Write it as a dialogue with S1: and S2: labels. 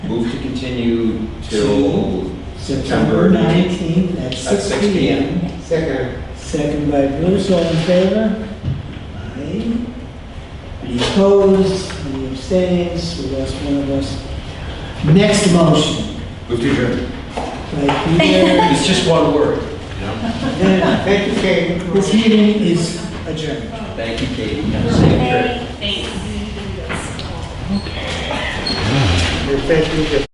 S1: Move to continue till September ninth
S2: nineteenth at
S1: at
S2: six
S1: six
S2: P
S1: P
S2: M.
S1: M.
S3: Second.
S2: Second by Bruce, all in favor? Aye. Any opposed, any abstains, we lost one of us. Next motion,
S1: Move to adjourn.
S2: by Peter.
S1: It's just one word, you know?
S3: Thank you, Kate.
S2: This meeting is adjourned.
S1: Thank you, Katie.
S4: Thanks.
S3: Thank you.